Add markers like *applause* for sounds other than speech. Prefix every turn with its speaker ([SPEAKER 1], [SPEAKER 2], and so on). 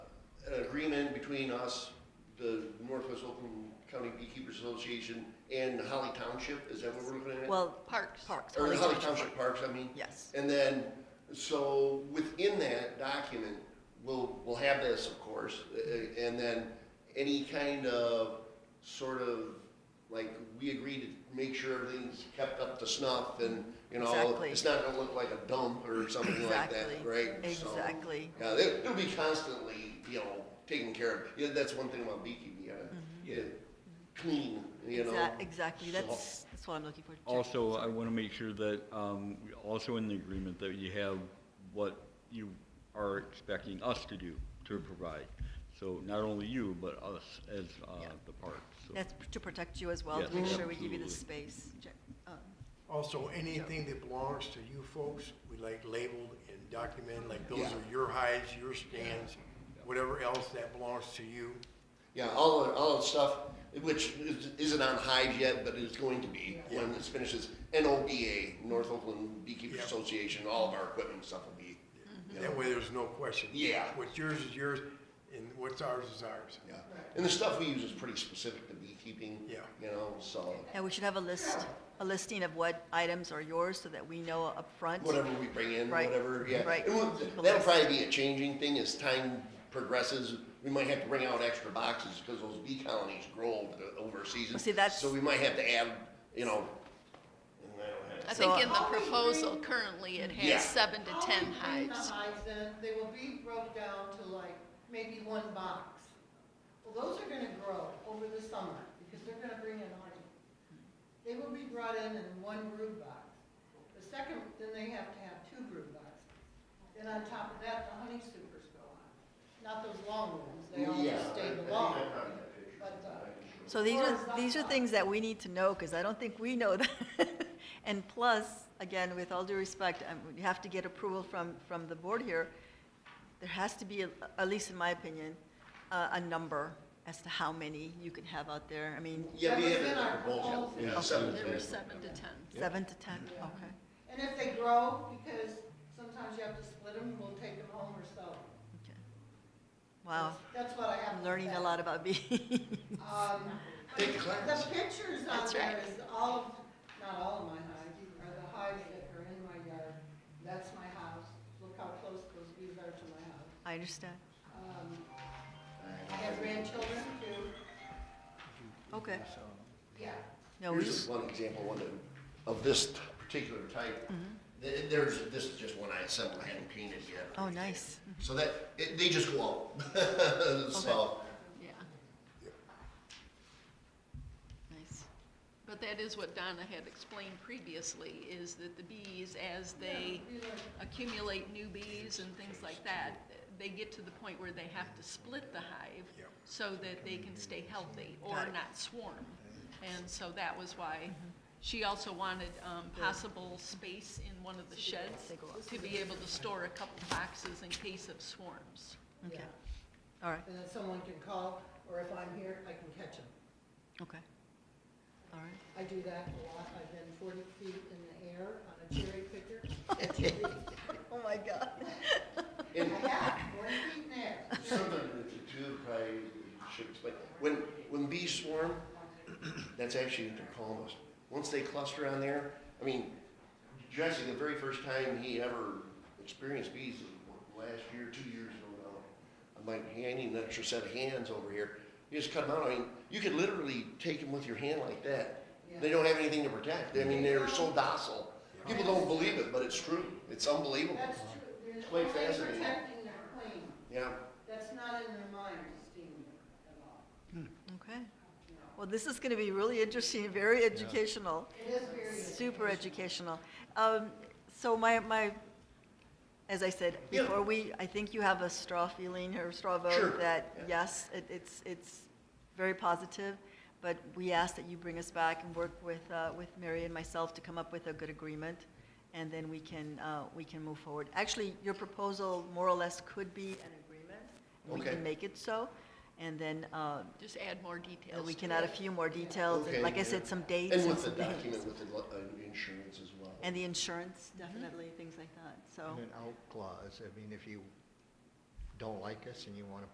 [SPEAKER 1] between us, the Northwest Oakland County Beekeepers Association, and Holly Township, is that what we're looking at?
[SPEAKER 2] Well,
[SPEAKER 3] Parks.
[SPEAKER 2] parks.
[SPEAKER 1] Or
[SPEAKER 2] Holly
[SPEAKER 1] Holly
[SPEAKER 2] Township
[SPEAKER 1] Township Parks, I mean?
[SPEAKER 2] Yes.
[SPEAKER 1] And then, so within that document, we'll, we'll have this, of course, uh, and then any kind of sort of, like, we agree to make sure everything's kept up to snuff and, you know,
[SPEAKER 2] Exactly.
[SPEAKER 1] it's not gonna look like a dump or something like that,
[SPEAKER 2] Exactly.
[SPEAKER 1] right? So,
[SPEAKER 2] Exactly.
[SPEAKER 1] Yeah, they- it'll be constantly, you know, taken care of. Yeah, that's one thing about beekeeping, you gotta
[SPEAKER 4] Yeah.
[SPEAKER 1] clean, you know?
[SPEAKER 2] Exac- Mm-hmm. Exactly,
[SPEAKER 1] so-
[SPEAKER 2] that's, that's what I'm looking for. Jeff.
[SPEAKER 4] Also, I want to make sure that, um, also in the agreement, that you have what you are expecting us to do, to provide. So not only you, but us as uh,
[SPEAKER 2] Yeah.
[SPEAKER 4] the parks. so.
[SPEAKER 2] That's p- to protect you as well,
[SPEAKER 4] Yes,
[SPEAKER 2] to make sure we give you the
[SPEAKER 4] absolutely.
[SPEAKER 2] space. Jack- uh,
[SPEAKER 5] Also, anything that belongs to you folks, we like labeled and documented, like those
[SPEAKER 1] Yeah.
[SPEAKER 5] are your hides, your stands, whatever else that belongs to you.
[SPEAKER 1] Yeah, all of, all of the stuff, which is- isn't on hive yet, but is going to be when this finishes. NOBA, North Oakland Beekeepers
[SPEAKER 5] Yeah.
[SPEAKER 1] Association, all of our equipment and stuff will be. you know,
[SPEAKER 5] That way, there's no question.
[SPEAKER 1] Yeah.
[SPEAKER 5] What's yours is yours, and what's ours is ours.
[SPEAKER 1] Yeah, and the stuff we use is pretty specific to beekeeping.
[SPEAKER 5] Yeah.
[SPEAKER 1] You know, so
[SPEAKER 2] Yeah, we should have a list, a listing of what items are yours so that we know upfront.
[SPEAKER 1] whatever we bring in,
[SPEAKER 2] Right,
[SPEAKER 1] whatever, yeah.
[SPEAKER 2] right.
[SPEAKER 1] And we'll-
[SPEAKER 2] Keep a
[SPEAKER 1] That'll
[SPEAKER 2] list.
[SPEAKER 1] probably be a changing thing as time progresses. We might have to bring out extra boxes because those bee colonies grow over the- over a season.
[SPEAKER 2] See, that's-
[SPEAKER 1] So we might have to add, you know. and I don't have-
[SPEAKER 3] I
[SPEAKER 2] So-
[SPEAKER 3] think in the proposal currently, it
[SPEAKER 1] Yeah.
[SPEAKER 3] has seven to
[SPEAKER 6] I'll
[SPEAKER 3] 10
[SPEAKER 6] be bringing the
[SPEAKER 3] hives.
[SPEAKER 6] hives in, they will be broke down to like maybe one box. Well, those are gonna grow over the summer, because they're gonna bring in honey. They will be brought in in one brood box. The second, then they have to have two brood boxes. Then on top of that, the honey supers go on. Not those long ones, they all
[SPEAKER 1] Yeah,
[SPEAKER 6] just
[SPEAKER 1] I- I
[SPEAKER 6] stay
[SPEAKER 1] think I
[SPEAKER 6] long.
[SPEAKER 1] have that picture.
[SPEAKER 6] But, uh,
[SPEAKER 2] So these
[SPEAKER 6] Or is
[SPEAKER 2] are,
[SPEAKER 6] that
[SPEAKER 2] these are
[SPEAKER 6] not-
[SPEAKER 2] things that we need to know, because I don't think we know that. *laughs* And plus, again, with all due respect, um, you have to get approval from, from the board here. There has to be, a- at least in my opinion, a, a number as to how many you can have out there. I mean,
[SPEAKER 1] Yeah, we
[SPEAKER 6] That
[SPEAKER 1] have
[SPEAKER 6] was
[SPEAKER 1] it
[SPEAKER 6] in our
[SPEAKER 1] proposal.
[SPEAKER 6] proposal.
[SPEAKER 1] Yeah,
[SPEAKER 2] Okay.
[SPEAKER 1] seven
[SPEAKER 3] There
[SPEAKER 1] to
[SPEAKER 3] were
[SPEAKER 1] ten.
[SPEAKER 3] seven to 10.
[SPEAKER 2] seven to 10,
[SPEAKER 6] Yeah.
[SPEAKER 2] okay.
[SPEAKER 6] And if they grow, because sometimes you have to split them, we'll take them home or sell 'em.
[SPEAKER 2] okay. Wow,
[SPEAKER 6] That's what I have.
[SPEAKER 2] I'm learning a lot about *laughs* bees.
[SPEAKER 6] Um,
[SPEAKER 1] Take the class.
[SPEAKER 6] The pictures on
[SPEAKER 3] That's
[SPEAKER 6] there
[SPEAKER 3] right.
[SPEAKER 6] is all, of not all of my hives, are the hives that are in my yard. That's my house. Look how close those bees are to my house.
[SPEAKER 2] I understand.
[SPEAKER 6] Um, I have grandchildren too.
[SPEAKER 2] Okay.
[SPEAKER 6] Yeah.
[SPEAKER 2] No, we
[SPEAKER 1] Here's just one example, one of, of this particular type.
[SPEAKER 6] Mm-hmm.
[SPEAKER 1] Th- There's, this is just one I assembled, I hadn't painted yet.
[SPEAKER 2] Oh, nice.
[SPEAKER 1] So that, it, they just go *laughs* out. So,
[SPEAKER 3] Yeah. Nice. But that is what Donna had explained previously, is that the bees, as they accumulate new bees and things like that, they get to the point where they have to split the hive
[SPEAKER 5] Yep.
[SPEAKER 3] so that they can stay healthy or
[SPEAKER 2] Got it.
[SPEAKER 3] not swarm. And so that was why she also wanted um, possible space in one of the sheds
[SPEAKER 2] They go up.
[SPEAKER 3] to be able to store a couple boxes in case of swarms.
[SPEAKER 2] Okay.
[SPEAKER 6] Yeah.
[SPEAKER 2] All right,
[SPEAKER 6] And then someone can call, or if I'm here, I can catch them.
[SPEAKER 2] okay. All right.
[SPEAKER 6] I do that a lot. I've been forty feet in the air on a cherry picker. Catching bees.
[SPEAKER 2] Oh, my God.
[SPEAKER 6] I
[SPEAKER 1] and
[SPEAKER 6] have, forty feet in the air.
[SPEAKER 1] something that too, probably should explain, when, when bees swarm, that's actually what they're calling us. Once they cluster on there, I mean, Jesse, the very first time he ever experienced bees was last year, two years ago now. I'm like, hey, I need an extra set of hands over here. You just cut them out. I mean, you could literally take them with your hand like that. They don't have anything to protect. I mean, they're so docile. People don't believe it, but it's true. It's unbelievable.
[SPEAKER 6] That's true. There's
[SPEAKER 1] Quite
[SPEAKER 6] only
[SPEAKER 1] fascinating.
[SPEAKER 6] protecting their queen.
[SPEAKER 1] Yeah.
[SPEAKER 6] That's not in their mind, Steve, at all.
[SPEAKER 2] Okay. Well, this is going to be really interesting, very educational,
[SPEAKER 6] It is very.
[SPEAKER 2] super educational. Um, So my, my, as I said
[SPEAKER 1] Yeah.
[SPEAKER 2] before, we, I think you have a straw feeling or straw
[SPEAKER 1] Sure.
[SPEAKER 2] vote that,
[SPEAKER 1] Yeah.
[SPEAKER 2] yes, it- it's, it's very positive, but we ask that you bring us back and work with, uh, with Mary and myself to come up with a good agreement, and then we can, uh, we can move forward. Actually, your proposal more or less could be an agreement. We
[SPEAKER 1] Okay.
[SPEAKER 2] can make it so, and then uh,
[SPEAKER 3] Just add more
[SPEAKER 2] uh,
[SPEAKER 3] details.
[SPEAKER 2] We
[SPEAKER 3] to
[SPEAKER 2] can
[SPEAKER 3] it.
[SPEAKER 2] add a few more details, and
[SPEAKER 1] Okay,
[SPEAKER 2] like I
[SPEAKER 1] yeah.
[SPEAKER 2] said, some dates.
[SPEAKER 1] And with the
[SPEAKER 2] some things.
[SPEAKER 1] document, with the lo- uh, insurance as well.
[SPEAKER 2] And the insurance, definitely,
[SPEAKER 1] Mm-hmm.
[SPEAKER 2] things like that, so.
[SPEAKER 7] And an out clause, I mean, if you don't like us and you want to